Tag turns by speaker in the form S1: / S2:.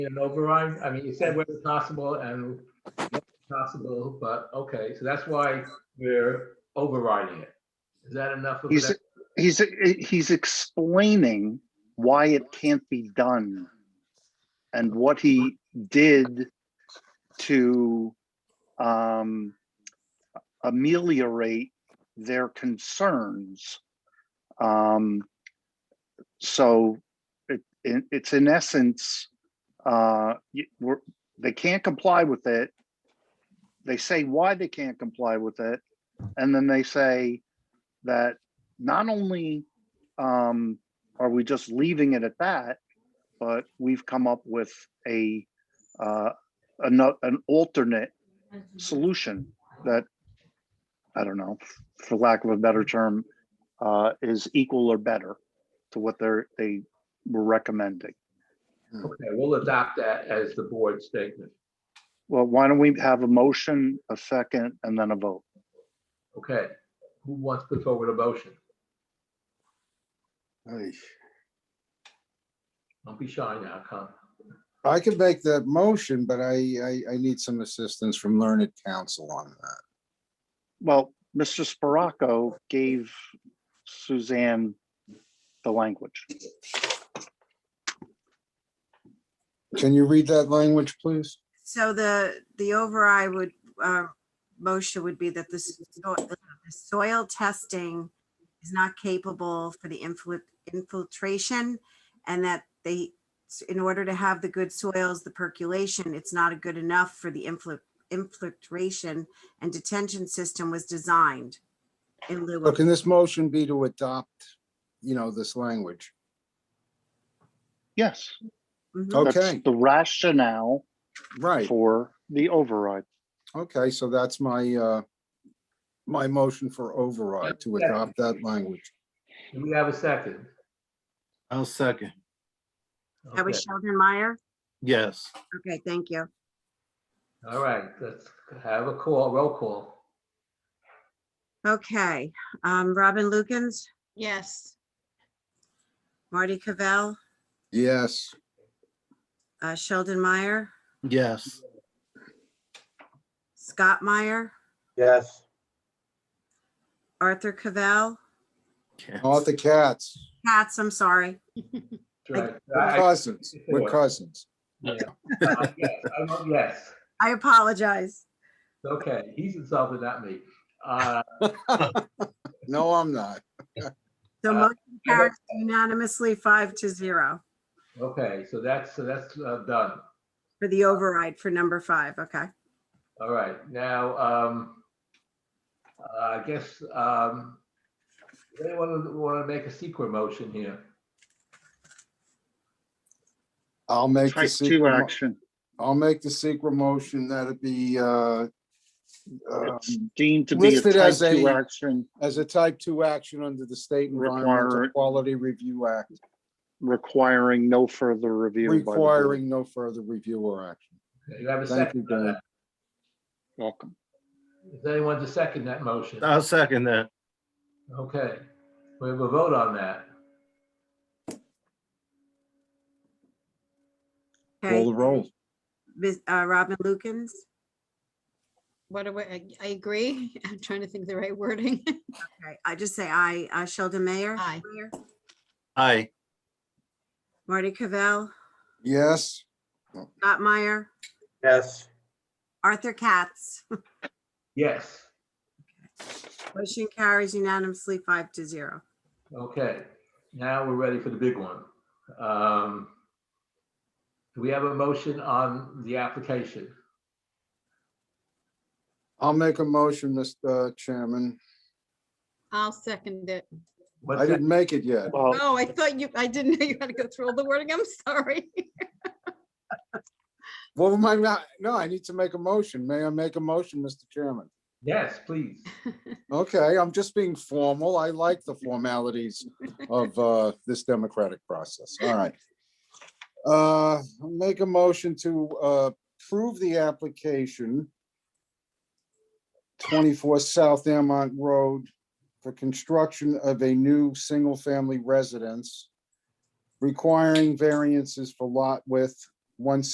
S1: an override? I mean, you said where it's possible and where it's possible, but okay, so that's why we're overriding it. Is that enough of
S2: He's,
S1: that?
S2: he's, he's explaining why it can't be done and what he did to um, ameliorate their concerns. Um, so it, it, it's in essence, uh, y- we're, they can't comply with it. They say why they can't comply with it. And then they say that not only um, are we just leaving it at that, but we've come up with a uh, an, an alternate solution that I don't know, for lack of a better term, uh, is equal or better to what they're they were recommending.
S1: Okay, we'll adopt that as the board statement.
S2: Well, why don't we have a motion, a second, and then a vote?
S1: Okay, who wants to put forward a motion?
S3: Aye.
S1: Don't be shy now, come.
S3: I could make that motion, but I, I, I need some assistance from learned counsel on that.
S2: Well, Mr. Sparaco gave Suzanne the language.
S3: Can you read that language, please?
S4: So the, the override would, uh, motion would be that the so- the soil testing is not capable for the infil- infiltration and that they, in order to have the good soils, the percolation, it's not good enough for the infil- infiltration and detention system was designed in lieu
S3: Or
S4: of,
S3: can this motion be to adopt, you know, this language?
S2: Yes,
S4: Mhm.
S2: that's
S3: Okay,
S2: the rationale
S3: right.
S2: for the override.
S3: Okay, so that's my, uh, my motion for override to adopt that language.
S1: Do we have a second?
S5: I'll second.
S4: that
S1: Okay,
S4: was Sheldon Meyer?
S5: Yes.
S4: Okay, thank you.
S1: All right, let's have a call, roll call.
S4: Okay, um, Robin Lukens,
S6: Yes,
S4: Marty Cavell,
S3: Yes,
S4: uh, Sheldon Meyer?
S5: Yes.
S4: Scott Meyer,
S7: yes,
S4: Arthur Cavell,
S5: Yes.
S3: Arthur Katz,
S4: Katz, I'm sorry.
S1: Right,
S3: we're
S1: I-
S3: cousins, we're cousins.
S1: yeah, I- yes, I vote Yes,
S4: I apologize.
S1: okay, he's insulted, not me. Uh,
S3: No, I'm not.
S4: So
S1: Uh,
S4: motion carries unanimously five to zero
S1: Okay, so that's, so that's uh, done.
S4: for the override for number five. Okay.
S1: All right, now, um, uh, I guess, um, does anyone want to make a secret motion here?
S3: I'll make the
S2: Type two
S3: secret,
S2: action.
S3: mo- I'll make the secret motion that it be, uh, um,
S2: It's deemed to be a
S3: listed
S2: type
S3: as
S2: two
S3: a-
S2: action
S3: as a type two action under the State Environmental
S2: Require-
S3: Quality Review Act,
S2: requiring no further review. by the board.
S3: requiring no further review or action.
S1: Do you have a
S3: Thank you,
S1: second?
S3: Dan.
S2: Welcome.
S1: Is anyone to second that motion?
S5: I'll second that.
S1: Okay, we have a vote on that.
S3: Roll
S4: Okay.
S3: the roll.
S4: Ms. uh, Robin Lukens,
S6: what do we, I- I agree. I'm trying to think of the right wording.
S4: okay, I just say aye. Uh, Sheldon Mayer.
S6: Aye.
S4: Meyer,
S5: Aye.
S4: Marty Cavell,
S3: Yes,
S4: Scott Meyer,
S7: yes.
S4: Arthur Katz.
S1: Yes,
S4: Motion carries unanimously five to zero.
S1: okay, now we're ready for the big one. Um, Do we have a motion on the application?
S3: I'll make a motion, Mr. Chairman.
S6: I'll second it.
S1: What's
S3: I
S1: that?
S3: didn't make it yet.
S2: Well,
S6: Oh, I thought you, I didn't know you had to go through all the wording. I'm sorry.
S3: What am I not? No, I need to make a motion. May I make a motion, Mr. Chairman?
S1: Yes, please.
S3: Okay, I'm just being formal. I like the formalities of uh, this democratic process. All right. Uh, Make a motion to uh, approve the application 24 South Airmont Road for construction of a new single-family residence requiring variances for lot width, one